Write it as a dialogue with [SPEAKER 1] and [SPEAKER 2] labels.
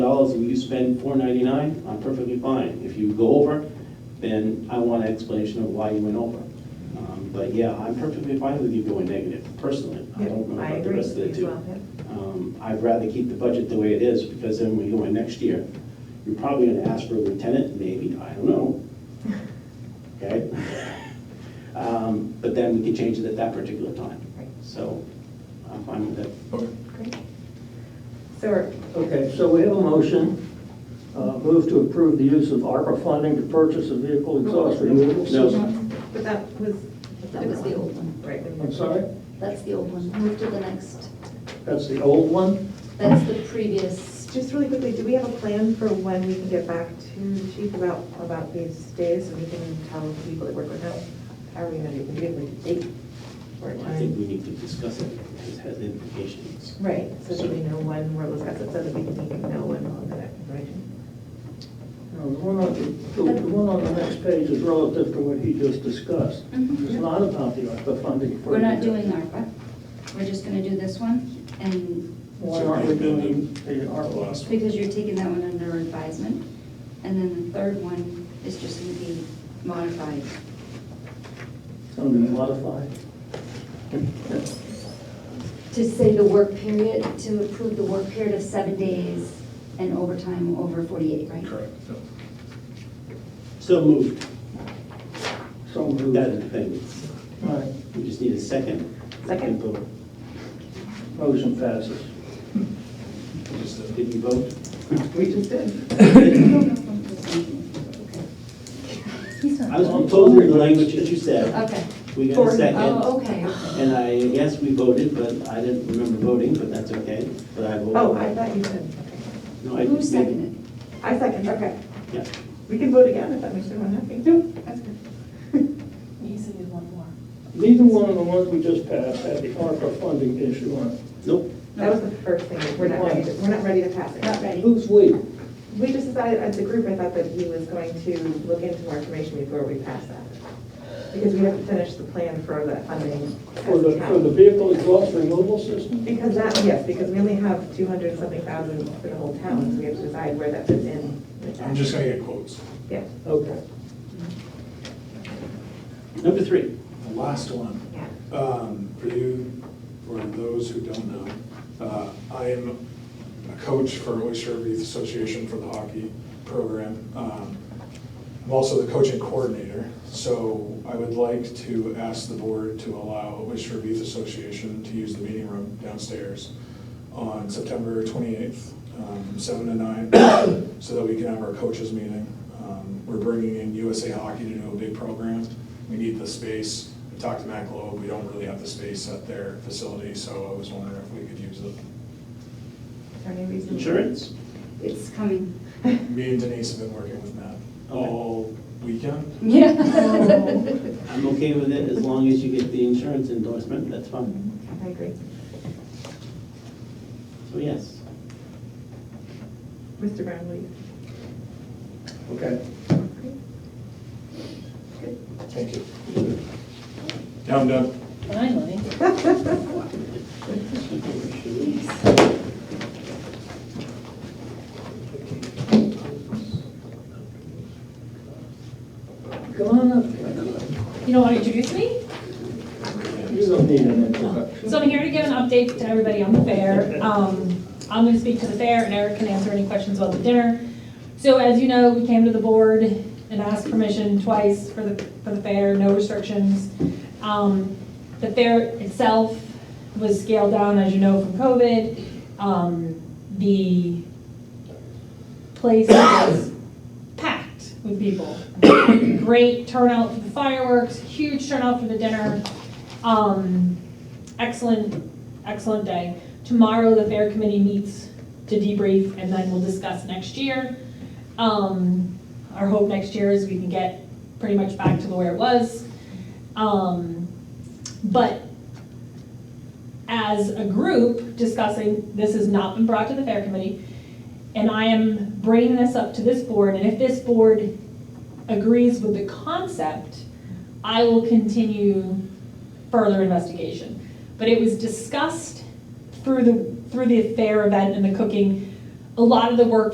[SPEAKER 1] dollars and you spend four ninety-nine, I'm perfectly fine. If you go over, then I want an explanation of why you went over. Um, But yeah, I'm perfectly fine with you going negative, personally. I don't know
[SPEAKER 2] I
[SPEAKER 1] about the
[SPEAKER 2] agree
[SPEAKER 1] rest of the
[SPEAKER 2] as
[SPEAKER 1] two.
[SPEAKER 2] well, yeah.
[SPEAKER 1] Um, I'd rather keep the budget the way it is, because then when you go in next year, you're probably gonna ask for a lieutenant, maybe, I don't know. Okay? Um, But then we can change it at that particular time.
[SPEAKER 2] Right.
[SPEAKER 1] So I'm fine with that.
[SPEAKER 3] Okay.
[SPEAKER 2] Great. So are-
[SPEAKER 4] Okay, so we have a motion, uh, move to approve the use of ARPA funding to purchase a vehicle exhaust removal system.
[SPEAKER 2] but that was.
[SPEAKER 5] That was the old one.
[SPEAKER 2] Right. we-
[SPEAKER 4] I'm sorry,
[SPEAKER 5] That's the old one. Move to the next.
[SPEAKER 4] that's the old one?
[SPEAKER 5] That's the previous.
[SPEAKER 2] Just really quickly, do we have a plan for when we can get back to the chief about, about these days? So we can tell the people that work with us, how are we gonna do, we give them a date or a
[SPEAKER 1] I think
[SPEAKER 2] time?
[SPEAKER 1] we need to discuss it, because it has implications.
[SPEAKER 2] Right, so that we know when we're discussing, so that we can we can know when all of that information.
[SPEAKER 4] No, The one on, the- the one on the next page is relative to what he just discussed. It's not about the ARPA funding. for-
[SPEAKER 5] Mm-hmm. We're not doing ARPA. We're just gonna do this one, and
[SPEAKER 4] Why aren't we doing the ARPA?
[SPEAKER 5] it's because you're taking that one under advisement. And then the third one is just gonna be modified.
[SPEAKER 4] It's going to be modified.
[SPEAKER 5] To say the work period, to approve the work period of seven days and overtime over 48, right?
[SPEAKER 3] Correct. Yep.
[SPEAKER 1] Still moved,
[SPEAKER 4] So moved.
[SPEAKER 1] that's the thing.
[SPEAKER 4] All right,
[SPEAKER 1] We just need a second.
[SPEAKER 2] Second.
[SPEAKER 1] Did you vote?
[SPEAKER 4] motion passes.
[SPEAKER 3] Just a-
[SPEAKER 1] uh, Did you vote?
[SPEAKER 4] We just did.
[SPEAKER 5] He's
[SPEAKER 1] I
[SPEAKER 5] not.
[SPEAKER 1] was proposing the language that you said.
[SPEAKER 5] Okay.
[SPEAKER 1] We got a second,
[SPEAKER 5] Oh, okay.
[SPEAKER 1] and I, yes, we voted, but I didn't remember voting, but that's okay, but I voted.
[SPEAKER 2] Oh, I thought you said,
[SPEAKER 1] No, I-
[SPEAKER 5] Who seconded?
[SPEAKER 2] I second, okay.
[SPEAKER 1] Yeah.
[SPEAKER 2] We can vote again if that makes everyone happy. No. That's good.
[SPEAKER 4] Neither one of the ones we just passed had the ARPA funding issue on it.
[SPEAKER 1] Nope,
[SPEAKER 2] That was the first thing, we're not ready, to- we're not ready to pass it.
[SPEAKER 5] Not ready.
[SPEAKER 4] Who's we?
[SPEAKER 2] We just decided as a group, I thought that he was going to look into more information before we pass that. Because we have to finish the plan for the funding.
[SPEAKER 4] For the, for the vehicle exhaust removal system?
[SPEAKER 2] Because that, yes, because we only have two hundred something thousand for the whole town, so we have to decide where that fits in. with that.
[SPEAKER 3] I'm just gonna get quotes.
[SPEAKER 2] Yeah,
[SPEAKER 4] Okay.
[SPEAKER 1] number three.
[SPEAKER 3] The last one.
[SPEAKER 2] yeah.
[SPEAKER 3] Um, For you, for those who don't know, uh, I am a coach for Oyster Reef Association for the hockey program. Um, I'm also the coaching coordinator, so I would like to ask the board to allow Oyster Reef Association to use the meeting room downstairs on September 28th, um, 7 to 9, so that we can have our coaches meeting. Um, We're bringing in USA Hockey to do a big program. We need the space. I talked to Matt Globe, we don't really have the space at their facility, so I was wondering if we could use it.
[SPEAKER 2] Attorney reason.
[SPEAKER 1] Insurance?
[SPEAKER 5] It's coming.
[SPEAKER 3] Me and Denise have been working with Matt
[SPEAKER 1] Okay.
[SPEAKER 3] all weekend.
[SPEAKER 5] Yeah.
[SPEAKER 2] Oh.
[SPEAKER 1] I'm okay with it as long as you get the insurance endorsement, that's fine.
[SPEAKER 2] I agree.
[SPEAKER 1] So yes.
[SPEAKER 2] Mr. Brown, will you?
[SPEAKER 4] Okay.
[SPEAKER 3] Thank you. Now I'm done.
[SPEAKER 6] Finally.
[SPEAKER 4] Come on up.
[SPEAKER 6] You don't want to introduce me?
[SPEAKER 4] You don't need an introduction.
[SPEAKER 6] So I'm here to give an update to everybody on the fair. Um, I'm going to speak to the fair, and Eric can answer any questions about the dinner. So as you know, we came to the board and asked permission twice for the, for the fair, no restrictions. Um, The fair itself was scaled down, as you know, from COVID. Um, The place was packed with people. Great turnout for the fireworks, huge turnout for the dinner. Um, excellent, excellent day. Tomorrow, the fair committee meets to debrief, and then we'll discuss next year. Um, our hope next year is we can get pretty much back to where it was. Um, but as a group discussing, this has not been brought to the fair committee, and I am bringing this up to this board, and if this board agrees with the concept, I will continue further investigation. But it was discussed through the, through the fair event and the cooking, a lot of the work